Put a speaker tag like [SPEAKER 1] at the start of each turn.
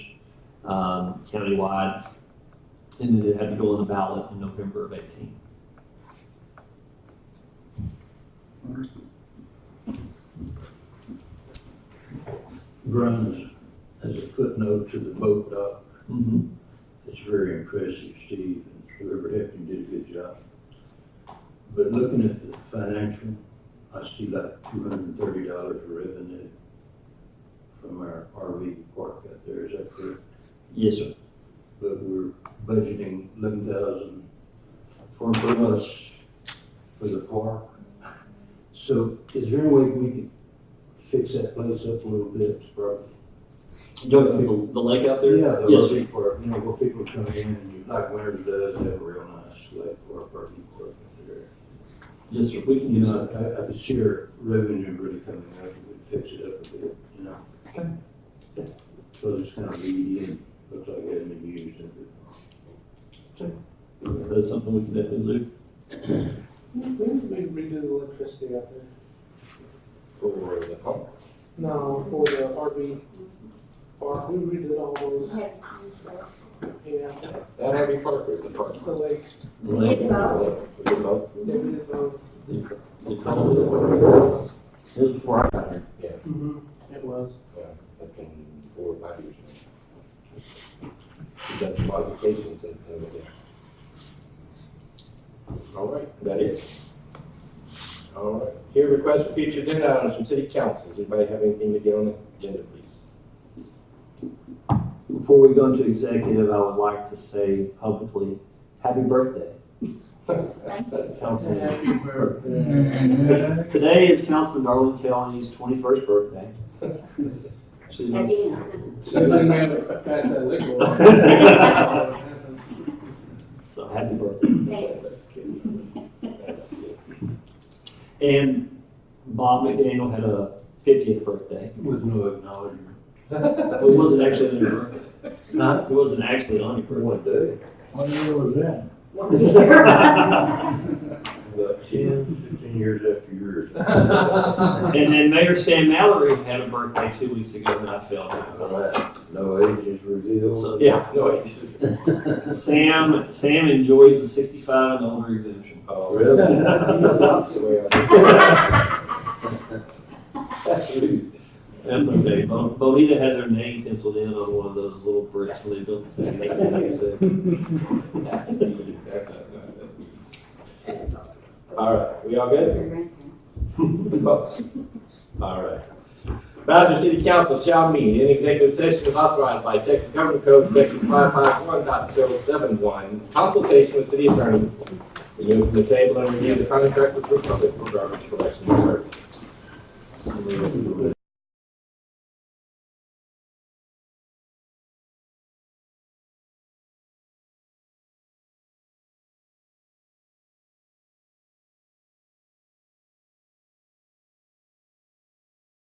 [SPEAKER 1] um, countywide. And then it had to go on the ballot in November of eighteen.
[SPEAKER 2] Grimes, as a footnote to the boat dock,
[SPEAKER 1] Mm-hmm.
[SPEAKER 2] it's very impressive, Steve, and whoever helped him did a good job. But looking at the financial, I see like two hundred and thirty dollars revenue from our RV park out there, is that correct?
[SPEAKER 1] Yes, sir.
[SPEAKER 2] But we're budgeting eleven thousand for for us for the park. So is there any way we could fix that place up a little bit, probably?
[SPEAKER 1] You know, the, the lake out there?
[SPEAKER 2] Yeah, the
[SPEAKER 1] Yes, sir.
[SPEAKER 2] RV park, you know, where people come in and you, like Winters does, they have a real nice lake or RV park up there.
[SPEAKER 1] Yes, sir. We can uh,
[SPEAKER 2] You
[SPEAKER 1] use
[SPEAKER 2] know,
[SPEAKER 1] it.
[SPEAKER 2] I, I could see our revenue really coming up, if we fix it up a bit, you know?
[SPEAKER 1] Okay. Yeah.
[SPEAKER 2] So it's kind of weedy and looks like it hasn't been used in a
[SPEAKER 1] That's something we can definitely do.
[SPEAKER 3] We need to redo the electricity out there.
[SPEAKER 2] for the park.
[SPEAKER 3] No, for the RV park, we redid all those, yeah,
[SPEAKER 4] That had to be part of the project.
[SPEAKER 3] the lake,
[SPEAKER 1] The lake.
[SPEAKER 5] It's about-
[SPEAKER 3] they did both.
[SPEAKER 1] They- they called it- It was before I got here.
[SPEAKER 3] Mm-hmm. It was.
[SPEAKER 4] That's been four or five years now. We've done some modifications since then, but yeah. All right, that is. All right, here request for future agenda items from city councils. Anybody have anything to get on the agenda, please?
[SPEAKER 1] Before we go into executive, I would like to say publicly, happy birthday, Councilman.
[SPEAKER 3] Happy birthday.
[SPEAKER 1] Today is Councilman Darlene Kelly's twenty-first birthday. She's my-
[SPEAKER 3] Pass that liquor.
[SPEAKER 1] So happy birthday.
[SPEAKER 4] That's good.
[SPEAKER 1] And Bob McDaniel had a fiftieth birthday.
[SPEAKER 2] With no acknowledgement.
[SPEAKER 1] It wasn't actually on your birthday.
[SPEAKER 2] Not
[SPEAKER 1] It wasn't actually on your
[SPEAKER 2] for
[SPEAKER 1] birthday.
[SPEAKER 6] What
[SPEAKER 2] one day,
[SPEAKER 6] year was that?
[SPEAKER 2] about ten, fifteen years after yours.
[SPEAKER 1] And then Mayor Sam Mallory had a birthday two weeks ago that I failed.
[SPEAKER 2] All right, no age is revealed.
[SPEAKER 1] So, yeah,
[SPEAKER 4] No, it isn't.
[SPEAKER 1] Sam, Sam enjoys the sixty-five and older exemption.
[SPEAKER 4] Oh,
[SPEAKER 2] Really?
[SPEAKER 4] That's the opposite way I- That's rude.
[SPEAKER 1] That's okay. Bo- Bonita has her name penciled in on one of those little bricks when they built the thing. They can't use it.
[SPEAKER 4] That's mean. That's not, no, that's mean. All right, we all good? All right. Badger City Council shall meet in executive session as authorized by Texas Government Code Section five five one consultation with city attorney. Remove from the table and review the contract with Republic for garbage collection service.